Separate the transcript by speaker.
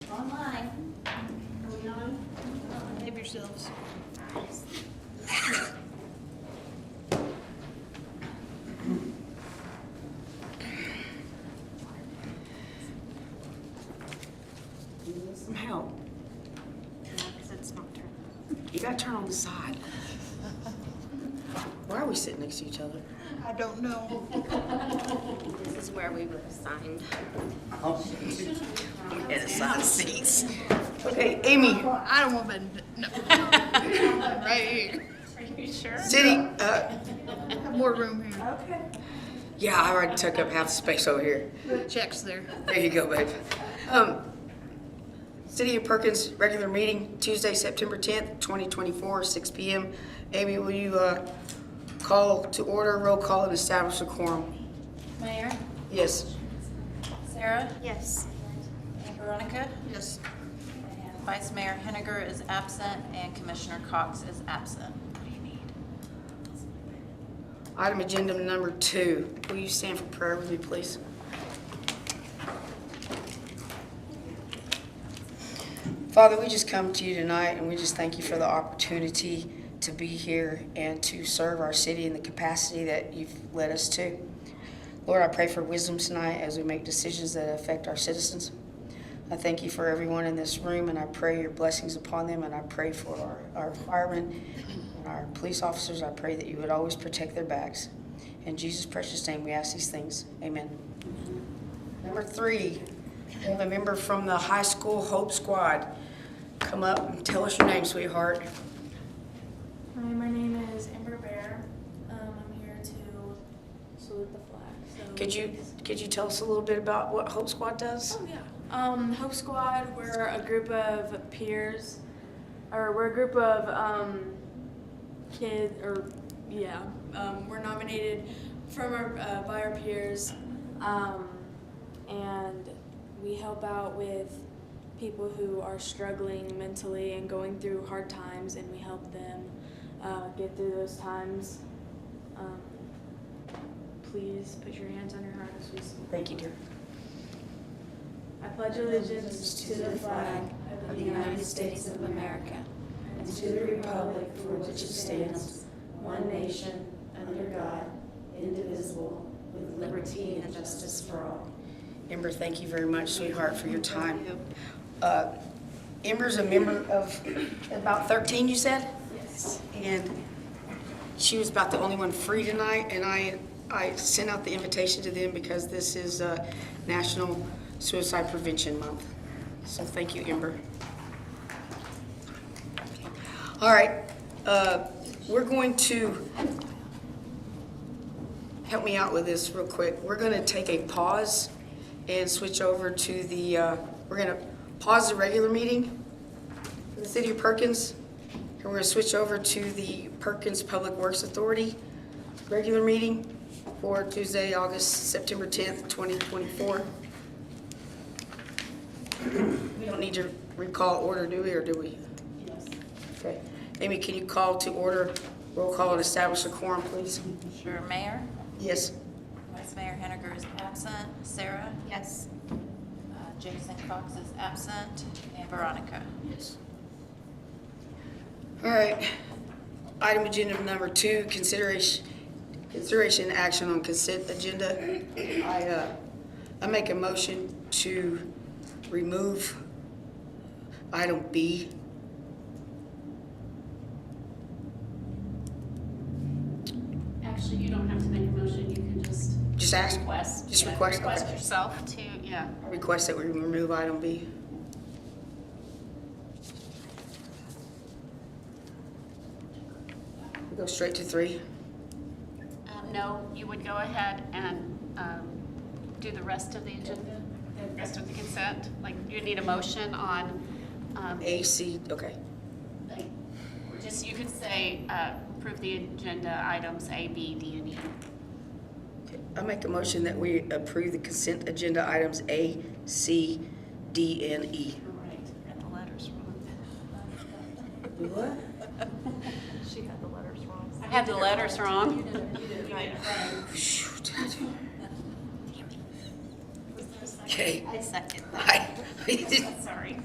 Speaker 1: yourselves.
Speaker 2: Somehow,
Speaker 1: It's not true.
Speaker 2: you gotta turn on the side. Why are we sitting next to each other?
Speaker 1: I don't know.
Speaker 3: This is where we were assigned.
Speaker 2: At the side seats. Okay, Amy,
Speaker 1: I don't want that, no. Right here.
Speaker 3: Are you sure?
Speaker 2: sitting, uh,
Speaker 1: Have more room here.
Speaker 2: yeah, I already took up half the space over here.
Speaker 1: Check's there.
Speaker 2: There you go, babe. Um, City of Perkins, regular meeting Tuesday, September tenth, twenty twenty-four, six P M. Amy, will you, uh, call to order, roll call and establish a quorum?
Speaker 4: Mayor,
Speaker 2: Yes.
Speaker 4: Sarah,
Speaker 3: Yes.
Speaker 4: and Veronica,
Speaker 1: Yes.
Speaker 4: and Vice Mayor Henninger is absent, and Commissioner Cox is absent.
Speaker 2: Item agenda number two, will you stand for prayer with me, please? Father, we just come to you tonight and we just thank you for the opportunity to be here and to serve our city in the capacity that you've led us to. Lord, I pray for wisdom tonight as we make decisions that affect our citizens. I thank you for everyone in this room and I pray your blessings upon them and I pray for our, our firemen and our police officers. I pray that you would always protect their backs. In Jesus' precious name, we ask these things. Amen. Number three, we have a member from the high school Hope Squad. Come up and tell us your name, sweetheart.
Speaker 5: Hi, my name is Amber Bear. Um, I'm here to salute the flag. So
Speaker 2: Could you, could you tell us a little bit about what Hope Squad does?
Speaker 5: Oh yeah. Um, Hope Squad. We're a group of peers, or we're a group of um, kids, or yeah. Um, we're nominated from our uh, by our peers, um, and we help out with people who are struggling mentally and going through hard times, and we help them uh, get through those times. Um, please put your hands on your heart as we salute.
Speaker 2: Thank you, dear.
Speaker 5: I pledge allegiance to the flag of the United States of America and to the republic for which it stands, one nation, under God, indivisible, with liberty and justice for all.
Speaker 2: Ember, thank you very much, sweetheart, for your time. Uh, Ember's a member of about 13, you said? Yes. And she was about the only one free tonight, and I, I sent out the invitation to them because this is uh, National Suicide Prevention Month. So thank you, Ember. All right, uh, we're going to, help me out with this real quick. We're going to take a pause and switch over to the, uh, we're going to pause the regular meeting for the City of Perkins, and we're going to switch over to the Perkins Public Works Authority regular meeting for Tuesday, August, September 10th, 2024. We don't need to recall order, do we, or do we? Yes. Okay. Amy, can you call to order, roll call, and establish a quorum, please?
Speaker 4: Sure. Mayor,
Speaker 2: Yes.
Speaker 4: Vice Mayor Henninger is absent, Sarah,
Speaker 3: Yes.
Speaker 4: uh, Jason Cox is absent, and Veronica.
Speaker 2: All right. Item agenda number two, consideration, consideration and action on consent agenda. I, uh, I make a motion to remove item B.
Speaker 6: Actually, you don't have to make a motion, you can just.
Speaker 2: Just ask.
Speaker 6: Request.
Speaker 2: Just
Speaker 6: yeah,
Speaker 2: request, okay.
Speaker 6: yourself to, yeah.
Speaker 2: Request that we remove item B. We Go straight to three.
Speaker 6: Um, No, you would go ahead and um, do the rest of the agenda, the rest of the consent. Like, you need a motion on, um,
Speaker 2: A, C, okay.
Speaker 6: like, just, you could say, uh, approve the agenda items A, B, D, and E.
Speaker 2: I make a motion that we approve the consent agenda items A, C, D, and E.
Speaker 6: All right, read the letters wrong.
Speaker 2: What?
Speaker 3: She had the letters wrong.
Speaker 6: I had the letters wrong.
Speaker 2: Shoot. Okay.
Speaker 4: I second
Speaker 2: I,
Speaker 4: Sorry.